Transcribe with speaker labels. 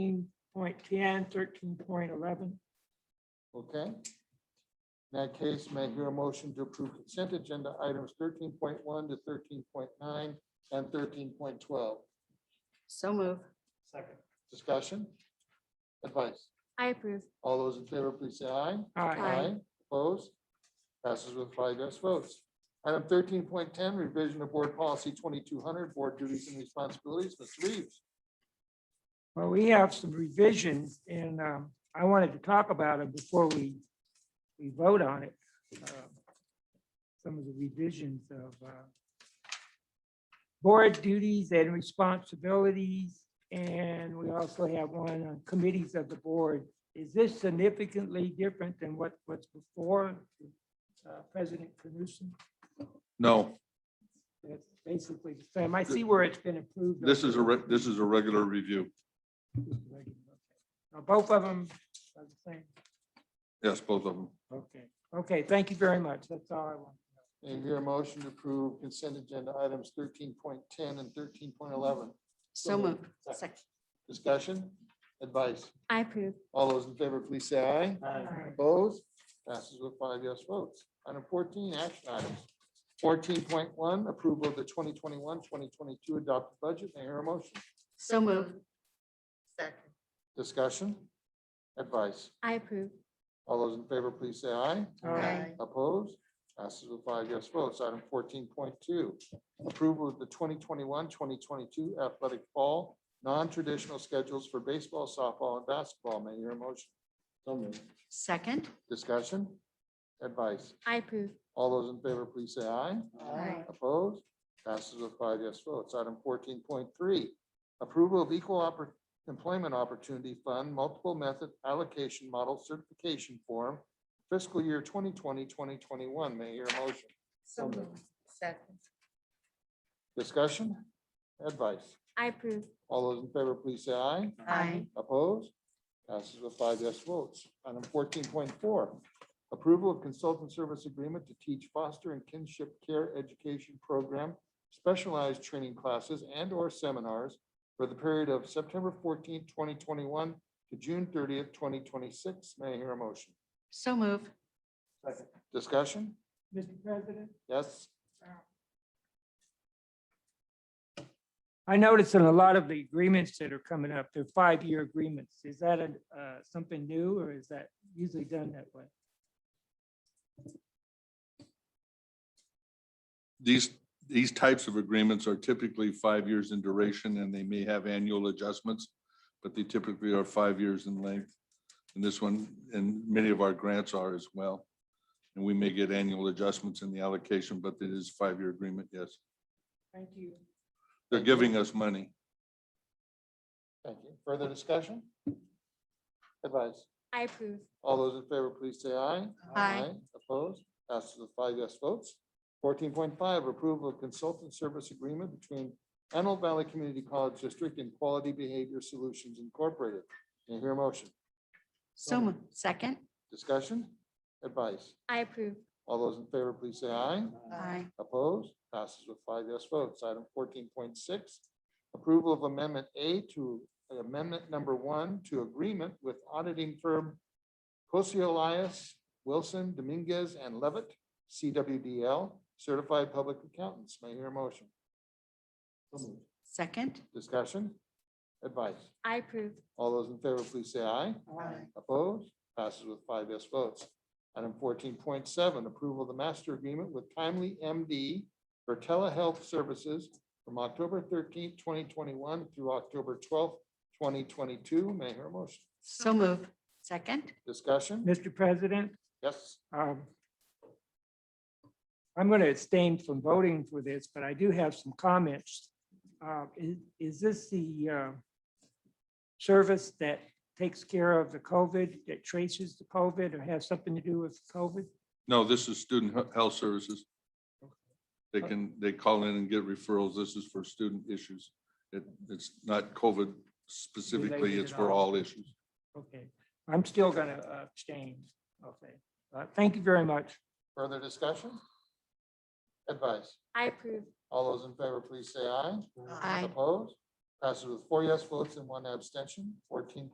Speaker 1: thirteen point ten, thirteen point eleven.
Speaker 2: Okay. In that case, may I hear a motion to approve consent agenda items thirteen point one to thirteen point nine and thirteen point twelve?
Speaker 3: So move.
Speaker 4: Second.
Speaker 2: Discussion? Advice?
Speaker 3: I approve.
Speaker 2: All those in favor, please say aye.
Speaker 1: All right,
Speaker 3: Aye.
Speaker 2: Opposed? Passes with five yes votes. Item thirteen point ten, revision of board policy twenty-two hundred, board duties and responsibilities. Mr. Reeves?
Speaker 1: well, we have some revisions and um, I wanted to talk about it before we, we vote on it. Uh, Some of the revisions of uh, board duties and responsibilities. And we also have one on committees of the board. Is this significantly different than what, what's before uh, President Knudsen?
Speaker 5: No,
Speaker 1: That's basically the same. I see where it's been improved.
Speaker 5: this is a, re- this is a regular review.
Speaker 1: Now, Both of them are the same.
Speaker 5: Yes, both of them.
Speaker 1: Okay, okay, thank you very much. That's all I want.
Speaker 2: May I hear a motion to approve consent agenda items thirteen point ten and thirteen point eleven?
Speaker 3: So move. Second.
Speaker 2: Discussion? Advice?
Speaker 3: I approve.
Speaker 2: All those in favor, please say aye. Opposed? Passes with five yes votes. Item fourteen, action items. Fourteen point one, approval of the 2021-2022 adopted budget. May I hear a motion?
Speaker 3: So move.
Speaker 2: Discussion? Advice?
Speaker 3: I approve.
Speaker 2: All those in favor, please say aye.
Speaker 1: All right,
Speaker 2: Opposed? Passes with five yes votes. Item fourteen point two, approval of the 2021-2022 athletic fall non-traditional schedules for baseball, softball, and basketball. May I hear a motion? So moved.
Speaker 3: Second.
Speaker 2: Discussion? Advice?
Speaker 3: I approve.
Speaker 2: All those in favor, please say aye.
Speaker 3: Aye.
Speaker 2: Opposed? Passes with five yes votes. Item fourteen point three, approval of equal Oppor- employment opportunity fund multiple method allocation model certification form fiscal year 2020, 2021. May I hear a motion?
Speaker 3: So move. Second.
Speaker 2: Discussion? Advice?
Speaker 3: I approve.
Speaker 2: All those in favor, please say aye.
Speaker 3: Aye.
Speaker 2: Opposed? Passes with five yes votes. Item fourteen point four, approval of consultant service agreement to teach foster and kinship care education program, specialized training classes and or seminars for the period of September fourteenth, twenty twenty-one to June thirtieth, twenty twenty-six. May I hear a motion?
Speaker 3: So move.
Speaker 2: Discussion?
Speaker 1: Mr. President,
Speaker 2: Yes?
Speaker 1: I noticed in a lot of the agreements that are coming up, they're five-year agreements. Is that a, uh, something new or is that usually done that way?
Speaker 5: These, these types of agreements are typically five years in duration and they may have annual adjustments, but they typically are five years in length. And this one, and many of our grants are as well. And we may get annual adjustments in the allocation, but it is five-year agreement, yes.
Speaker 1: Thank you.
Speaker 5: They're
Speaker 2: Thank you.
Speaker 5: giving us money.
Speaker 2: Thank you. Further discussion? Advice?
Speaker 3: I approve.
Speaker 2: All those in favor, please say aye.
Speaker 3: Aye.
Speaker 2: Opposed? Passes with five yes votes. Fourteen point five, approval of consultant service agreement between Antelope Valley Community College District and Quality Behavior Solutions Incorporated. May I hear a motion?
Speaker 3: So move. Second.
Speaker 2: Discussion? Advice?
Speaker 3: I approve.
Speaker 2: All those in favor, please say aye.
Speaker 3: Aye.
Speaker 2: Opposed? Passes with five yes votes. Item fourteen point six, approval of amendment A to amendment number one to agreement with auditing firm Cosio Elias, Wilson, Dominguez, and Levitt, CWDL, certified public accountants. May I hear a motion?
Speaker 3: Second.
Speaker 2: Discussion? Advice?
Speaker 3: I approve.
Speaker 2: All those in favor, please say aye.
Speaker 3: Aye.
Speaker 2: Opposed? Passes with five yes votes. Item fourteen point seven, approval of the master agreement with Timely MD for telehealth services from October thirteenth, twenty twenty-one through October twelfth, twenty twenty-two. May I hear a motion?
Speaker 3: So move. Second.
Speaker 2: Discussion?
Speaker 1: Mr. President,
Speaker 2: Yes.
Speaker 1: um, I'm going to abstain from voting for this, but I do have some comments. Uh, Is is this the uh, service that takes care of the COVID, that traces the COVID or has something to do with COVID?
Speaker 5: No, this is student he- health services. They can, they call in and get referrals. This is for student issues. It, it's not COVID specifically,
Speaker 1: Related
Speaker 5: it's
Speaker 1: at
Speaker 5: for
Speaker 1: all.
Speaker 5: all issues.
Speaker 1: Okay, I'm still going to abstain. Okay, Uh, thank you very much.
Speaker 2: Further discussion? Advice?
Speaker 3: I approve.
Speaker 2: All those in favor, please say aye.
Speaker 3: Aye.
Speaker 2: Opposed? Passes with four yes votes and one abstention. Fourteen